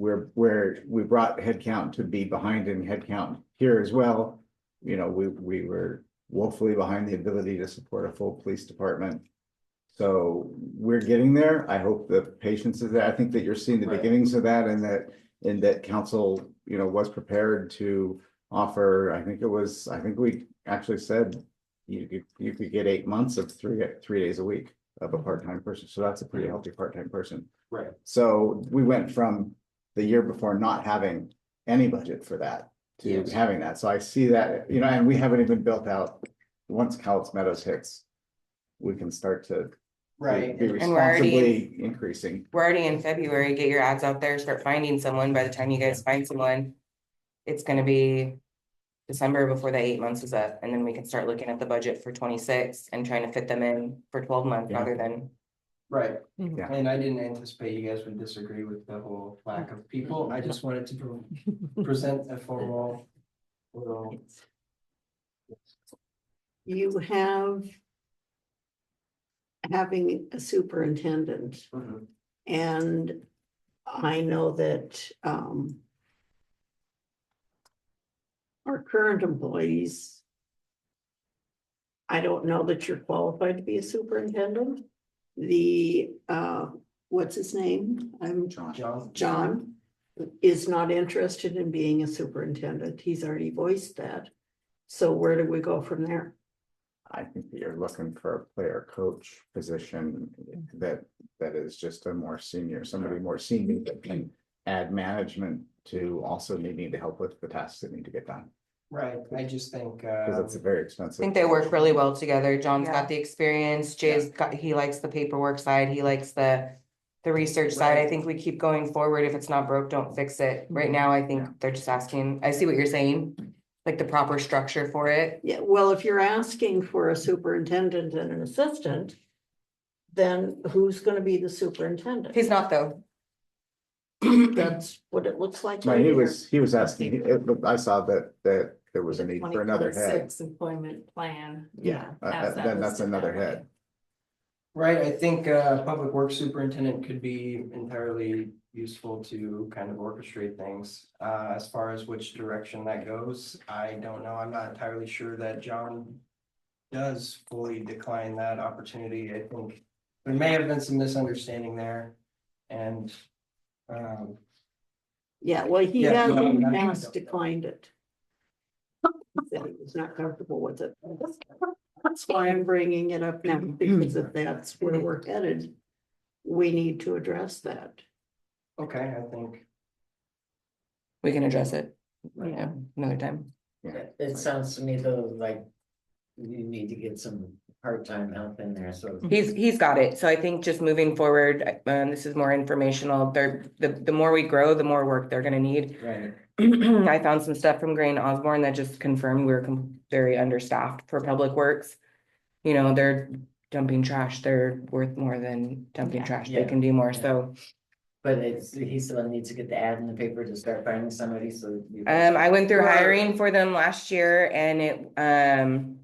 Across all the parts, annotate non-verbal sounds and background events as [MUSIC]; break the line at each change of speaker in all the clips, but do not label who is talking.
we're, we're, we brought headcount to be behind in headcount here as well. You know, we, we were woefully behind the ability to support a full police department. So we're getting there. I hope the patience is there. I think that you're seeing the
Right.
beginnings of that and that, and that council, you know, was prepared to offer, I think it was, I think we actually said you could, you could get eight months of three, three days a week of a part-time person. So that's a pretty healthy part-time person.
Right.
So we went from the year before not having any budget for that to
Yes.
having that. So I see that, you know, and we haven't even built out, once Cowles Meadows hits, we can start to
Right,
be
and-
And we're already in-
responsibly increasing.
We're already in February, get your ads out there, start finding someone, by the time you guys find someone. It's gonna be December before the eight months is up, and then we can start looking at the budget for twenty-six and trying to fit them in for twelve months
Yeah.
rather than.
right.
Yeah.
And I didn't anticipate you guys would disagree with the whole lack of people. I just wanted to pre- present a formal. Little,
You have. Having a superintendent
Mhm.
and I know that, um. Our current employees. I don't know that you're qualified to be a superintendent. The, uh, what's his name? I'm
John,
John is not interested in being a superintendent. He's already voiced that. So where do we go from there?
I think that you're looking for a player coach position that, that is just a more senior, somebody more senior that can add management to also needing to help with the tasks that need to get done,
right, I just think,
because
uh,
it's very
I
expensive.
think they work really well together. John's
Yeah.
got the experience, Jay's got, he likes the paperwork side, he likes the. The research side. I
Right.
think we keep going forward. If it's not broke, don't fix it. Right
Mhm.
now, I
Yeah.
think they're just asking, I see what you're saying. Like the proper structure for it.
Yeah, well, if you're asking for a superintendent and an assistant. Then who's gonna be the superintendent?
He's not though.
That's what it looks like.
No,
right
he
here.
was, he was asking, he- it- I saw that, that there was a
the
need for another head.
2026 Employment plan.
Yeah, uh,
as
uh,
that
then that's
listed
another
that way.
head.
right, I think, uh, public works superintendent could be entirely useful to kind of orchestrate things. Uh, as far as which direction that goes, I don't know, I'm not entirely sure that John does fully decline that opportunity, I think there may have been some misunderstanding there, and, um,
Yeah, well, he
Yeah,
has
so I'm
in the
not-
past declined it. He said he was not comfortable with it. That's why I'm bringing it up now, because if that's where we're headed. We need to address that.
okay, I think,
We can address it, you
Yeah.
know, another time.
It- It sounds to me though, like you need to get some part-time help in there, so.
He's, he's got it. So I think just moving forward, um, this is more informational. They're, the, the more we grow, the more work they're gonna need. [CLEARS THROAT]
right,
I found some stuff from Gray and Osborne that just confirmed we we're com- very understaffed for public works. You know, they're dumping trash. They're worth more than dumping
Yeah.
trash. They
Yeah.
can do more. So,
But it's, he still needs to get the ad in the paper to start finding somebody, so. you-
um, I went through
Right.
hiring for them last year and it, um,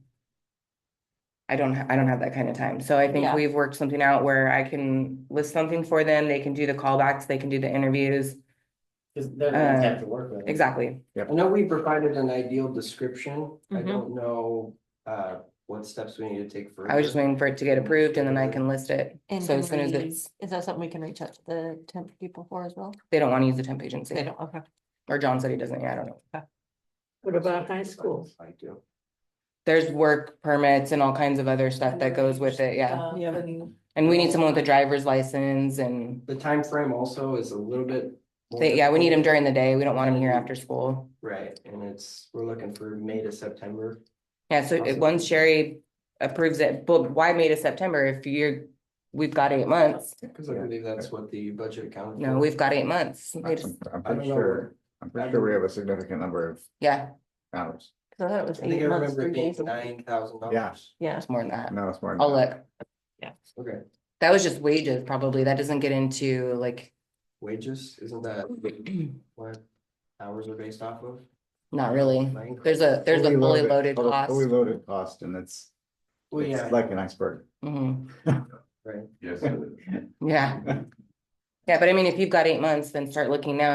I don't, ha- I don't have that kind of time. So I think
Yeah.
we've worked something out where I can list something for them. They can do the callbacks, they can do the interviews.
'Cause they're gonna have to work with it.
Exactly.
I know we provided an ideal description, I
Mm-hmm.
Mhm.
don't know, uh, what steps we need to take further.
I was just waiting for it to get approved and then I can list it.
And
So as soon as
can we-
it's,
Is that something we can reach out to the temp people for as well?
they don't want to use the temp
They
agency
don't, okay.
or John said he doesn't, yeah, I don't know.
What about high schools?
I do.
There's work permits and all kinds of other stuff that goes with it. Yeah.
Uh,
Yeah.
and-
And we need someone with a driver's license and
The time frame also is a little bit. more
they, yeah, we need them
difficult.
during the day. We don't want them here after school.
Right, and it's, we're looking for May to September.
Yeah, so it-
Awesome.
once Sherry approves it, but why May to September if you're, we've got eight months?
Because I
Yeah.
believe that's what the budget accounted for.
No, we've got eight months. They
I'm
just-
I'm
I don't
pretty
know,
sure,
where-
I'm pretty sure we have a significant number of
Yeah,
hours.
Cause I thought it was
I think
eight
I
months,
remember
three
it being
days. a week.
nine thousand dollars.
Yeah.
Yeah.
it's more than that.
No, it's more. than
I'll
that.
look.
Okay,
That was just wages probably. That doesn't get into like, [CLEARS THROAT]
wages, isn't that what hours are based off of?
not really.
My increase?
There's a, there's a
Fully
fully loaded
fully-
cost.
Fully loaded cost and it's,
Well, yeah.
it's like an iceberg.
Mhm.
Right.
Yes.
Yeah. Yeah, but I mean, if you've got eight months, then start looking now.